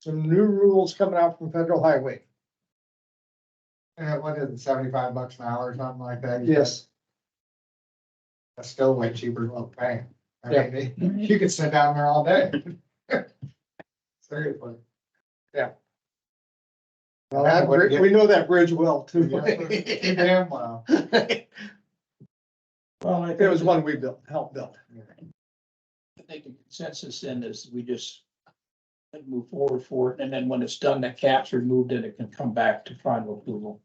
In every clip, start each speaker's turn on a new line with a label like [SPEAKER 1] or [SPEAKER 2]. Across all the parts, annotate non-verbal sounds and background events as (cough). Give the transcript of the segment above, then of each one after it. [SPEAKER 1] some new rules coming out from federal highway.
[SPEAKER 2] Yeah, Uh, what is it, seventy-five bucks an hour or something like that?
[SPEAKER 1] Yes,
[SPEAKER 2] That's still way cheaper than what we're paying. I
[SPEAKER 1] Yeah.
[SPEAKER 2] mean,
[SPEAKER 3] Mm-hmm.
[SPEAKER 2] you could sit down there all day. (laughs) Seriously.
[SPEAKER 1] (laughs) well, that bri- we know that bridge well too. (laughs)
[SPEAKER 2] Too damn well.
[SPEAKER 4] Well, I
[SPEAKER 1] It was
[SPEAKER 4] think,
[SPEAKER 1] one we built, helped build.
[SPEAKER 4] I think the consensus then is we just move forward for it, and then when it's done, the cap's removed, and it can come back to final approval.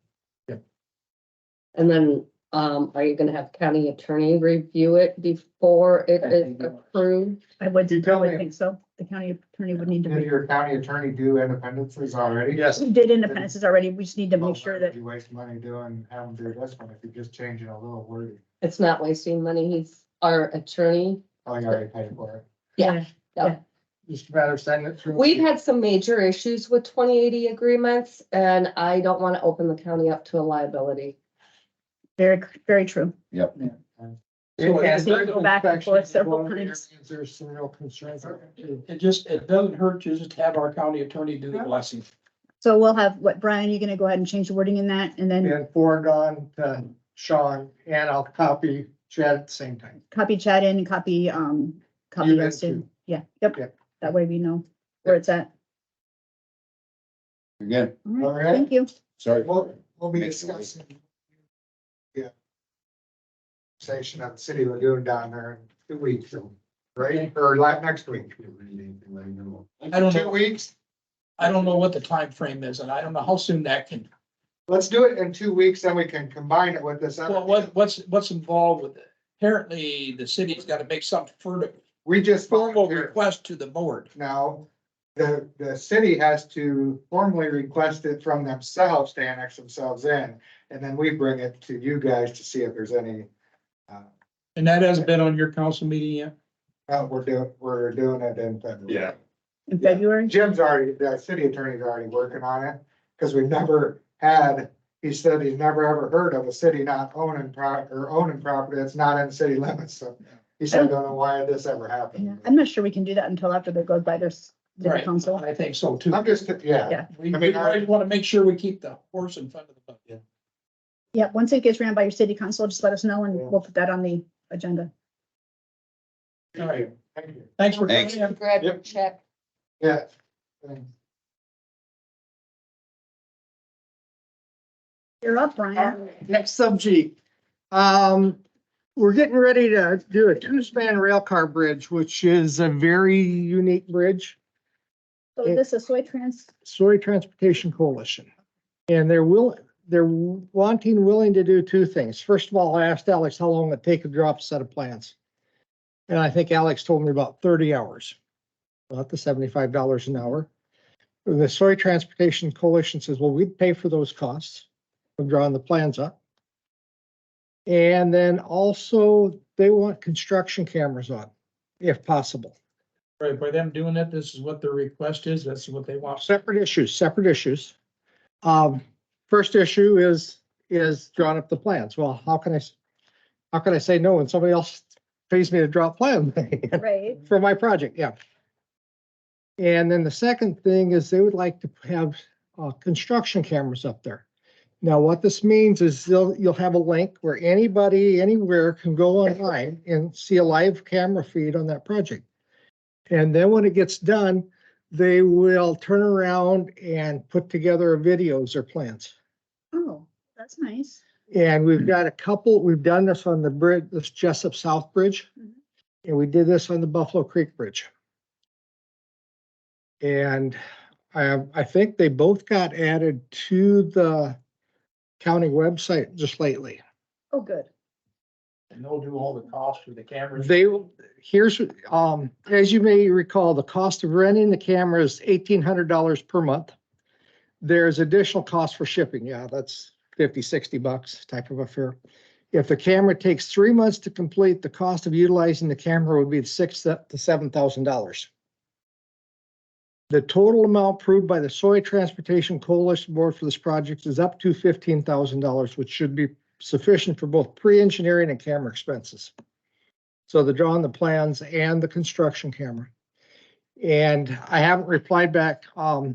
[SPEAKER 5] And then, um, are you gonna have county attorney review it before it
[SPEAKER 4] I
[SPEAKER 5] is
[SPEAKER 4] think it was.
[SPEAKER 5] approved?
[SPEAKER 3] I would,
[SPEAKER 1] You tell
[SPEAKER 3] I
[SPEAKER 1] me.
[SPEAKER 3] would think so. The county attorney would need to.
[SPEAKER 2] Did
[SPEAKER 3] be-
[SPEAKER 2] your county attorney do independences already?
[SPEAKER 1] Yes,
[SPEAKER 3] We did independences already. We just need to make sure that
[SPEAKER 2] You waste money doing, have them do this one if you're just changing a little wording.
[SPEAKER 5] It's not wasting money, he's our attorney.
[SPEAKER 2] Oh, you already paid for it.
[SPEAKER 5] Yeah,
[SPEAKER 1] just a matter of sending it through.
[SPEAKER 5] We've had some major issues with twenty eighty agreements, and I don't wanna open the county up to a liability.
[SPEAKER 3] very, very true.
[SPEAKER 1] And
[SPEAKER 4] So it's
[SPEAKER 3] gonna go back and forth
[SPEAKER 1] inspections is one of
[SPEAKER 3] several
[SPEAKER 1] the
[SPEAKER 3] times.
[SPEAKER 1] areas There's some real concerns. about, too.
[SPEAKER 4] It it just, it doesn't hurt to just have our county attorney do the blessing.
[SPEAKER 3] So we'll have, what, Brian, you're gonna go ahead and change the wording in that and then
[SPEAKER 1] And forward on to Sean, and I'll copy Chad at the same time.
[SPEAKER 3] copy chat in and copy, um, copy
[SPEAKER 1] guys
[SPEAKER 3] us in.
[SPEAKER 1] too.
[SPEAKER 3] Yeah,
[SPEAKER 1] Yeah.
[SPEAKER 3] yep. That way we know where it's at.
[SPEAKER 6] Again,
[SPEAKER 3] All right,
[SPEAKER 2] All right,
[SPEAKER 3] Thank you.
[SPEAKER 6] sorry.
[SPEAKER 2] we'll, we'll be
[SPEAKER 6] Makes it worse.
[SPEAKER 2] discussing. Yeah. Station of the city lagoon down there in two weeks, right? Or like next week.
[SPEAKER 4] I don't
[SPEAKER 2] Two
[SPEAKER 4] know,
[SPEAKER 2] weeks?
[SPEAKER 4] I don't know what the time frame is, and I don't know how soon that can,
[SPEAKER 2] Let's do it in two weeks, then we can combine it with this. other-
[SPEAKER 4] well, what, what's, what's involved with it. Apparently, the city's gotta make some further
[SPEAKER 2] We just.
[SPEAKER 4] formal
[SPEAKER 2] volunteered.
[SPEAKER 4] request to the board.
[SPEAKER 2] Now, the, the city has to formally request it from themselves to annex themselves in. And then we bring it to you guys to see if there's any, uh,
[SPEAKER 4] And that hasn't been on your council meeting yet?
[SPEAKER 2] uh, we're doing, we're doing it in February.
[SPEAKER 6] Yeah.
[SPEAKER 3] In
[SPEAKER 2] Yeah.
[SPEAKER 3] February.
[SPEAKER 2] Jim's already, the city attorney's already working on it, because we've never had, he said he's never ever heard of a city not owning pro, or owning property that's not in city limits, so. He said, I don't know why this ever
[SPEAKER 3] Yeah,
[SPEAKER 2] happened.
[SPEAKER 3] I'm not sure we can do that until after that goes by their, s- their
[SPEAKER 4] Right,
[SPEAKER 3] council.
[SPEAKER 4] I think so too.
[SPEAKER 2] I'm just, yeah,
[SPEAKER 3] Yeah.
[SPEAKER 4] We,
[SPEAKER 2] I
[SPEAKER 4] we
[SPEAKER 2] mean, I-
[SPEAKER 4] always wanna make sure we keep the horse in front of the buck.
[SPEAKER 3] Yeah, once it gets ran by your city council, just let us know and
[SPEAKER 2] Yeah.
[SPEAKER 3] we'll put that on the agenda.
[SPEAKER 4] All right.
[SPEAKER 2] thank you,
[SPEAKER 4] Thanks for coming
[SPEAKER 6] Thanks.
[SPEAKER 4] in.
[SPEAKER 5] Grab
[SPEAKER 2] Yep.
[SPEAKER 5] check.
[SPEAKER 2] yeah.
[SPEAKER 3] You're up, Brian.
[SPEAKER 1] Next subject. Um, we're getting ready to do a two-span rail car bridge, which is a very unique bridge.
[SPEAKER 3] So
[SPEAKER 1] Yeah.
[SPEAKER 3] is this a soy trans,
[SPEAKER 1] Soy Transportation Coalition. And they're will, they're wanting, willing to do two things. First of all, I asked Alex how long it'd take to drop a set of plans. And I think Alex told me about thirty hours, about the seventy-five dollars an hour. The Soy Transportation Coalition says, well, we'd pay for those costs of drawing the plans up. And then also they want construction cameras on, if possible.
[SPEAKER 4] Right, by them doing it, this is what their request is, that's what they want.
[SPEAKER 1] Uh, separate issues, separate issues. Um, first issue is, is drawing up the plans. Well, how can I, s- how can I say no when somebody else pays me to draw a plan (laughs)
[SPEAKER 3] right?
[SPEAKER 1] for my project? Yeah. And then the second thing is they would like to have, uh, construction cameras up there. Now, what this means is they'll, you'll have a link where anybody, anywhere can go online and see a live camera feed on that project. And then when it gets done, they will turn around and put together videos or plans.
[SPEAKER 3] Oh, that's nice.
[SPEAKER 1] And we've got a couple, we've done this on the bridge, this Jessup South Bridge.
[SPEAKER 3] Mhm.
[SPEAKER 1] And we did this on the Buffalo Creek Bridge. And I, I think they both got added to the county website just lately.
[SPEAKER 3] Oh, good.
[SPEAKER 4] And they'll do all the costs for the cameras.
[SPEAKER 1] They, will- here's, um, as you may recall, the cost of renting the camera is eighteen hundred dollars per month. There's additional cost for shipping. Yeah, that's 50, 60 bucks type of affair. If the camera takes three months to complete, the cost of utilizing the camera would be six to seven thousand dollars. The total amount approved by the Soy Transportation Coalition Board for this project is up to fifteen thousand dollars, which should be sufficient for both pre-engineering and camera expenses. So the drawing the plans and the construction camera. And I haven't replied back, um,